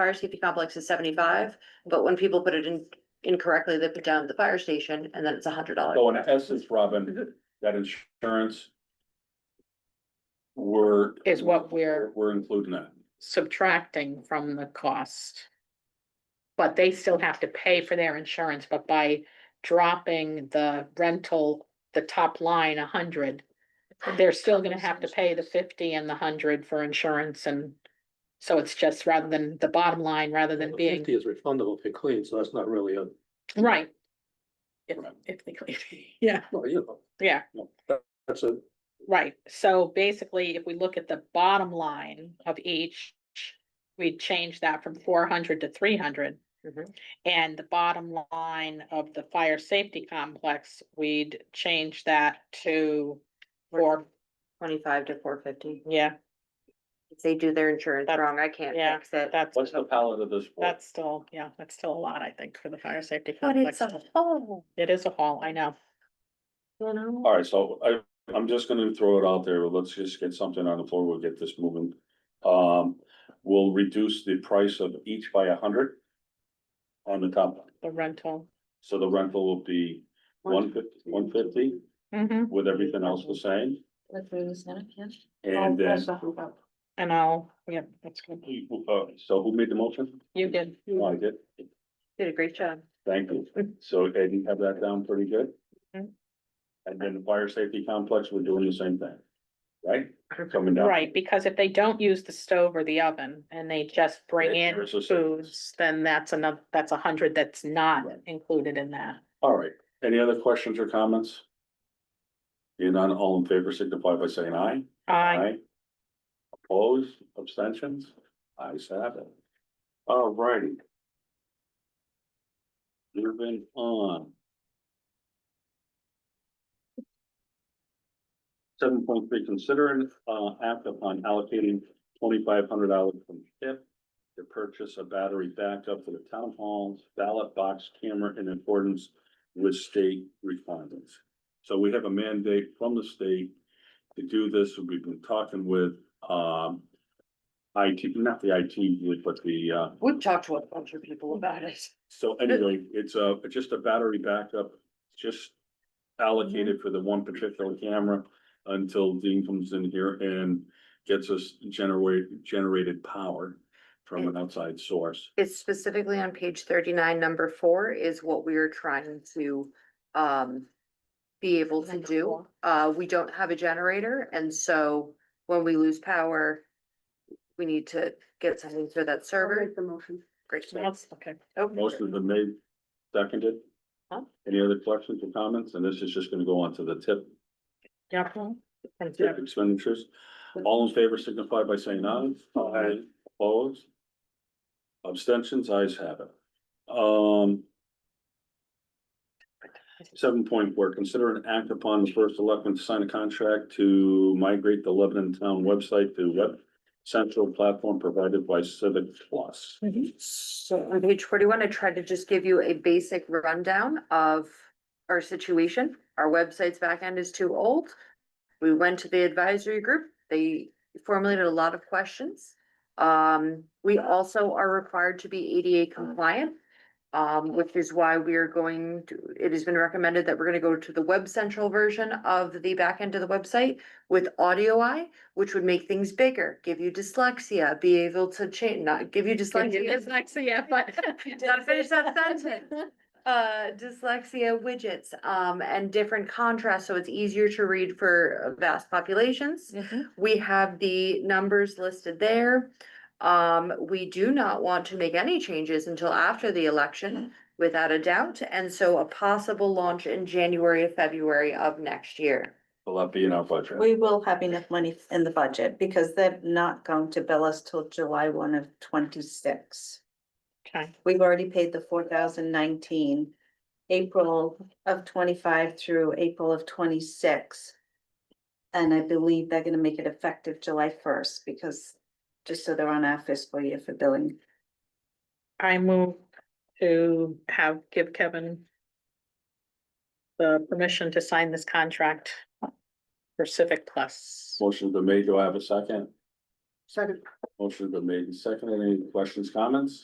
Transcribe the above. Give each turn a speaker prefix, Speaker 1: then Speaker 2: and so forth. Speaker 1: fire safety complex is seventy-five, but when people put it in incorrectly, they put down the fire station and then it's a hundred dollars.
Speaker 2: So in essence, Robin,
Speaker 3: Mhm.
Speaker 2: that insurance. We're.
Speaker 3: Is what we're-
Speaker 2: We're including that.
Speaker 3: subtracting from the cost. But they still have to pay for their insurance, but by dropping the rental, the top line a hundred. They're still gonna have to pay the fifty and the hundred for insurance and. So it's just rather than the bottom line, rather than
Speaker 4: Well, the
Speaker 3: being,
Speaker 4: Fifty is refundable if you clean, so that's not really a,
Speaker 3: right. If,
Speaker 2: Right.
Speaker 3: if they clean, yeah,
Speaker 4: well, you know,
Speaker 3: yeah.
Speaker 4: that's a,
Speaker 3: Right, so basically, if we look at the bottom line of each, we change that from four hundred to three hundred.
Speaker 1: Mhm.
Speaker 3: And the bottom line of the fire safety complex, we'd change that to four,
Speaker 1: Twenty-five to four fifty.
Speaker 3: yeah,
Speaker 1: If they do their insurance
Speaker 3: That's-
Speaker 1: wrong, I can't
Speaker 3: yeah,
Speaker 1: fix it.
Speaker 3: that's,
Speaker 2: What's the palette of this? for?
Speaker 3: that's still, yeah, that's still a lot, I think, for the fire safety
Speaker 1: But it's
Speaker 3: complex.
Speaker 1: a whole,
Speaker 3: It is a haul, I know,
Speaker 1: you know?
Speaker 2: All right, so I, I'm just gonna throw it out there. Let's just get something on the floor. We'll get this moving. Um, we'll reduce the price of each by a hundred. On the top, line.
Speaker 3: the rental.
Speaker 2: so the rental will be one fifty, one fifty
Speaker 3: Mhm.
Speaker 2: with everything else the same.
Speaker 3: I'll-
Speaker 2: And then,
Speaker 3: also- And I'll, yeah, that's good,
Speaker 2: Uh, so who made the motion?
Speaker 3: you did,
Speaker 2: Oh, I did.
Speaker 1: Did a great job.
Speaker 2: Thank you. So Ed, you have that down pretty good?
Speaker 3: Mhm.
Speaker 2: And then the fire safety complex, we're doing the same thing, right? Coming down.
Speaker 3: Right, because if they don't use the stove or the oven and they just bring
Speaker 2: Yeah,
Speaker 3: in
Speaker 2: it's the same.
Speaker 3: foods, then that's another, that's a hundred that's not
Speaker 2: Right.
Speaker 3: included in that.
Speaker 2: All right. Any other questions or comments? Being none, all in favor signify by saying aye.
Speaker 3: I,
Speaker 2: Opposed, abstentions? Ayes have it. All righty. Moving on. Seven point three, considering uh act upon allocating twenty-five hundred dollars from tip to purchase a battery backup for the town hall's ballot box camera in accordance with state requirements. So we have a mandate from the state to do this. We've been talking with um IT, not the IT, group, but the uh
Speaker 1: We've talked to a bunch of people about it.
Speaker 2: so anyway, it's a, just a battery backup, just allocated for the one particular camera until Dean comes in here and gets us generate, generated power from an outside source.
Speaker 1: It's specifically on page thirty-nine, number four is what we are trying to, um, be able to
Speaker 3: Number
Speaker 1: do.
Speaker 3: four.
Speaker 1: Uh, we don't have a generator, and so when we lose power, we need to get something for that server.
Speaker 5: the motion.
Speaker 1: Great. Oh.
Speaker 3: that's, okay,
Speaker 2: Most of them made, seconded.
Speaker 3: Huh?
Speaker 2: Any other questions or comments? And this is just gonna go on to the tip,
Speaker 3: yeah.
Speaker 2: tip expenditures. All in favor signify by saying aye. Aye. Opposed? Abstentions, ayes have it. Um, Seven point four, consider an act upon the first election to sign a contract to migrate the Lebanon Town website to web central platform provided by Civic Plus.
Speaker 1: So on page forty-one, I tried to just give you a basic rundown of our situation. Our website's backend is too old. We went to the advisory group. They formulated a lot of questions. Um, we also are required to be ADA compliant. um, which is why we are going to, it has been recommended that we're gonna go to the web central version of the backend of the website with audio eye, which would make things bigger, give you dyslexia, be able to change, not give you dyslexia.
Speaker 3: Dyslexia, but.
Speaker 1: Gotta finish that sentence. Uh, dyslexia widgets, um, and different contrast, so it's easier to read for uh, vast populations. We have the numbers listed there. Um, we do not want to make any changes until after the election, without a doubt, and so a possible launch in January or February of next year.
Speaker 2: Will that be in our budget?
Speaker 5: We will have enough money in the budget because they're not going to bill us till July one of twenty-six.
Speaker 3: Okay,
Speaker 5: We've already paid the four thousand nineteen, April of twenty-five through April of twenty-six. And I believe they're gonna make it effective July first because, just so they're on our fiscal year for billing.
Speaker 3: I move to have, give Kevin. The permission to sign this contract. For Civic Plus.
Speaker 2: Motion's been made. Do I have a second?
Speaker 3: Second.
Speaker 2: Motion's been made and seconded. Any questions, comments?